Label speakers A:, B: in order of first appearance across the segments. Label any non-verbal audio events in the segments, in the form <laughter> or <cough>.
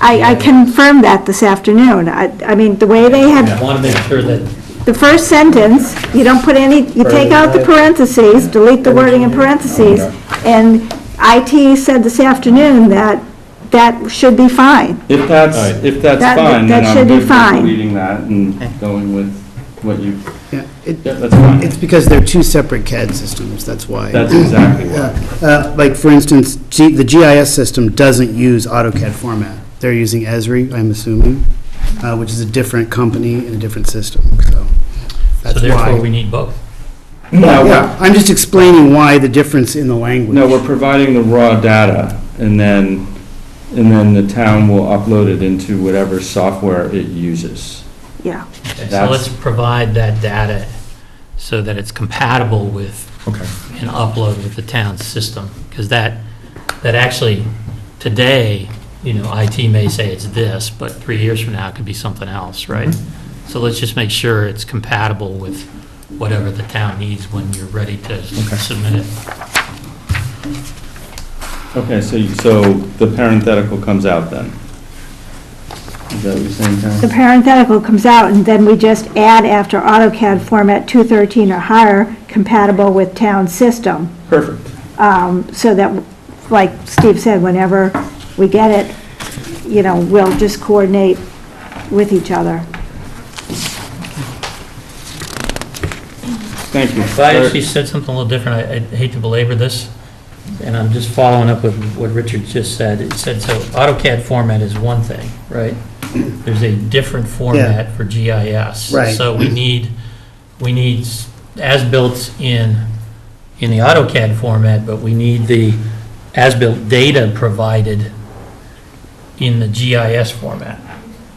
A: I, I confirmed that this afternoon. I, I mean, the way they
B: I
A: had,
B: want to make sure that,
A: the first sentence, you don't put any, you take out the parentheses, delete the wording in parentheses, and IT said this afternoon that that should be fine.
C: If that's,
B: Alright.
C: if that's
A: That-
C: fine,
A: that
C: then
A: should
C: I'm
A: be
C: good with
A: fine.
C: deleting that and going with what you,
D: Yeah, it,
C: yeah, that's fine.
D: it's because they're two separate CAD systems, that's why.
C: That's exactly
D: Yeah,
C: why.
D: uh, Like, for instance, G- the GIS system doesn't use AutoCAD format. They're using Esri, I'm assuming, uh, which is a different company and a different system, so
B: so
D: that's
B: therefore we
D: why.
B: need both.
C: No,
D: Yeah,
C: we're,
D: I'm just explaining why the difference in the language.
C: no, we're providing the raw data, and then, and then the town will upload it into whatever software it uses.
A: Yeah.
B: Okay, So
C: That's-
B: let's provide that data so that it's compatible with
C: Okay.
B: and upload with the town's system, because that, that actually, today, you know, IT may say it's this, but three years from now, it could be something else, right? So let's just make sure it's compatible with whatever the town needs when you're ready to submit it.
C: Okay, so, you- so the parenthetical comes out then? Is that what you're saying,
A: The
C: Karen?
A: parenthetical comes out, and then we just add after AutoCAD format 213 or higher, compatible with town system.
C: Perfect.
A: um, so that, like Steve said, whenever we get it, you know, we'll just coordinate with each other.
C: Thank you.
B: Well, I actually said something a little different. I I hate to belabor this, and I'm just following up with what Richard just said. It said, so AutoCAD format is one thing, right? There's a different format for GIS.
D: Right.
B: So we need, we need s- as-built in, in the AutoCAD format, but we need the as-built data provided in the GIS format.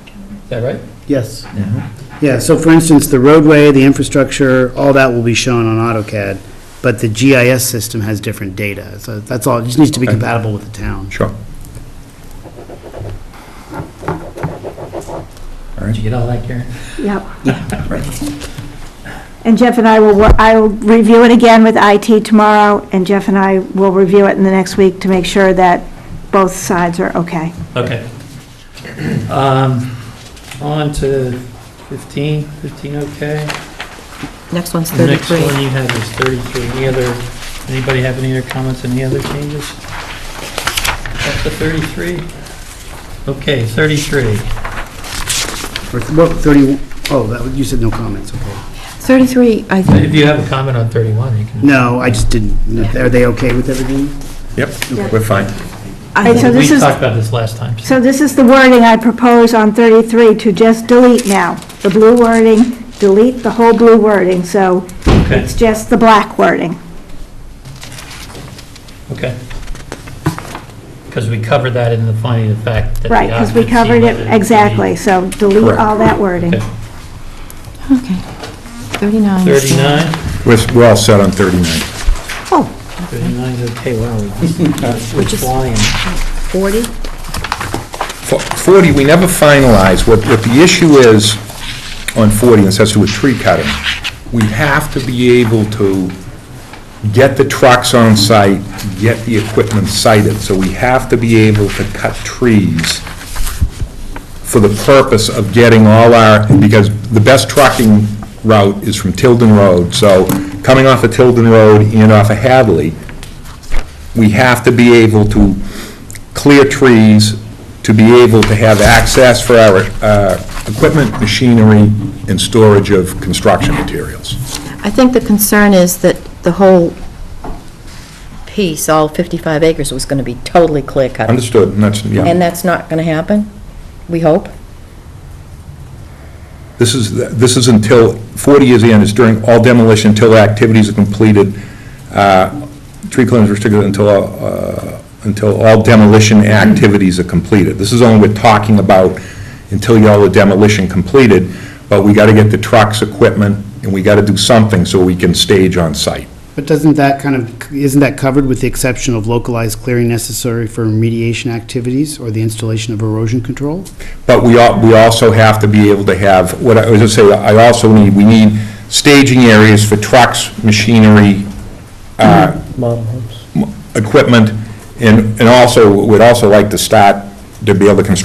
B: Is that right?
D: Yes.
C: Mhm.
D: Yeah, so for instance, the roadway, the infrastructure, all that will be shown on AutoCAD, but the GIS system has different data, so that's all, it just needs to be
C: Okay.
D: compatible with the town.
C: Sure.
B: Did you get all that, Karen?
A: Yep. And Jeff and I will, wor- I will review it again with IT tomorrow, and Jeff and I will review it in the next week to make sure that both sides are okay.
B: Okay. Um, On to 15, 15 okay.
E: Next one's
B: The next
E: 33.
B: one you have is 33. Any other, anybody have any other comments, any other changes? That's the 33? Okay, 33.
D: Or, well, 31, oh, that, you said no comments, okay.
E: 33, I think,
B: If you have a comment on 31, you can.
D: No, I just didn't, are they okay with everything?
A: Yeah.
F: Yep, we're fine.
A: Right,
E: I
A: so
E: think,
B: We
A: this is-
B: talked about this last time.
A: So this is the wording I propose on 33 to just delete now. The blue wording, delete the whole blue wording, so
B: Okay,
A: it's just the black wording.
B: okay. Because we covered that in the finding of fact. that the
A: Right, because we
B: occupancy
A: covered
B: whether
A: it,
B: be-
A: exactly, so delete
F: Correct.
A: all that wording.
B: Okay.
E: okay. 39.
B: 39?
F: We're, we're all set on 39.
B: 39 is okay, wow, we
E: <laughs>
B: just- we're
E: Which is-
B: flying.
E: 40?
F: Fo- 40, we never finalize what, what the issue is on 40, and this has to do with tree cutting. We have to be able to get the trucks on site, get the equipment sited, so we have to be able to cut trees for the purpose of getting all our, because the best trucking route is from Tilden Road, so coming off of Tilden Road and off of Hadley, we have to be able to clear trees, to be able to have access for our uh, equipment, machinery, and storage of construction materials.
E: I think the concern is that the whole piece, all 55 acres, was going to be totally clear cut.
F: Understood, and that's,
E: And
F: yeah.
E: that's not going to happen, we hope.
F: This is, this is until, 40 years in, it's during all demolition until activities are completed. Uh, Tree clearing is restricted until, uh, until all demolition activities are completed. This is only we're talking about until y'all the demolition completed, but we got to get the trucks, equipment, and we got to do something so we can stage on site.
D: But doesn't that kind of, isn't that covered with the exception of localized clearing necessary for remediation activities or the installation of erosion control?
F: But we al, we also have to be able to have, what I was gonna say, I also need, we need staging areas for trucks, machinery, uh, m- equipment, and, and also, we'd also like to start to be able to construct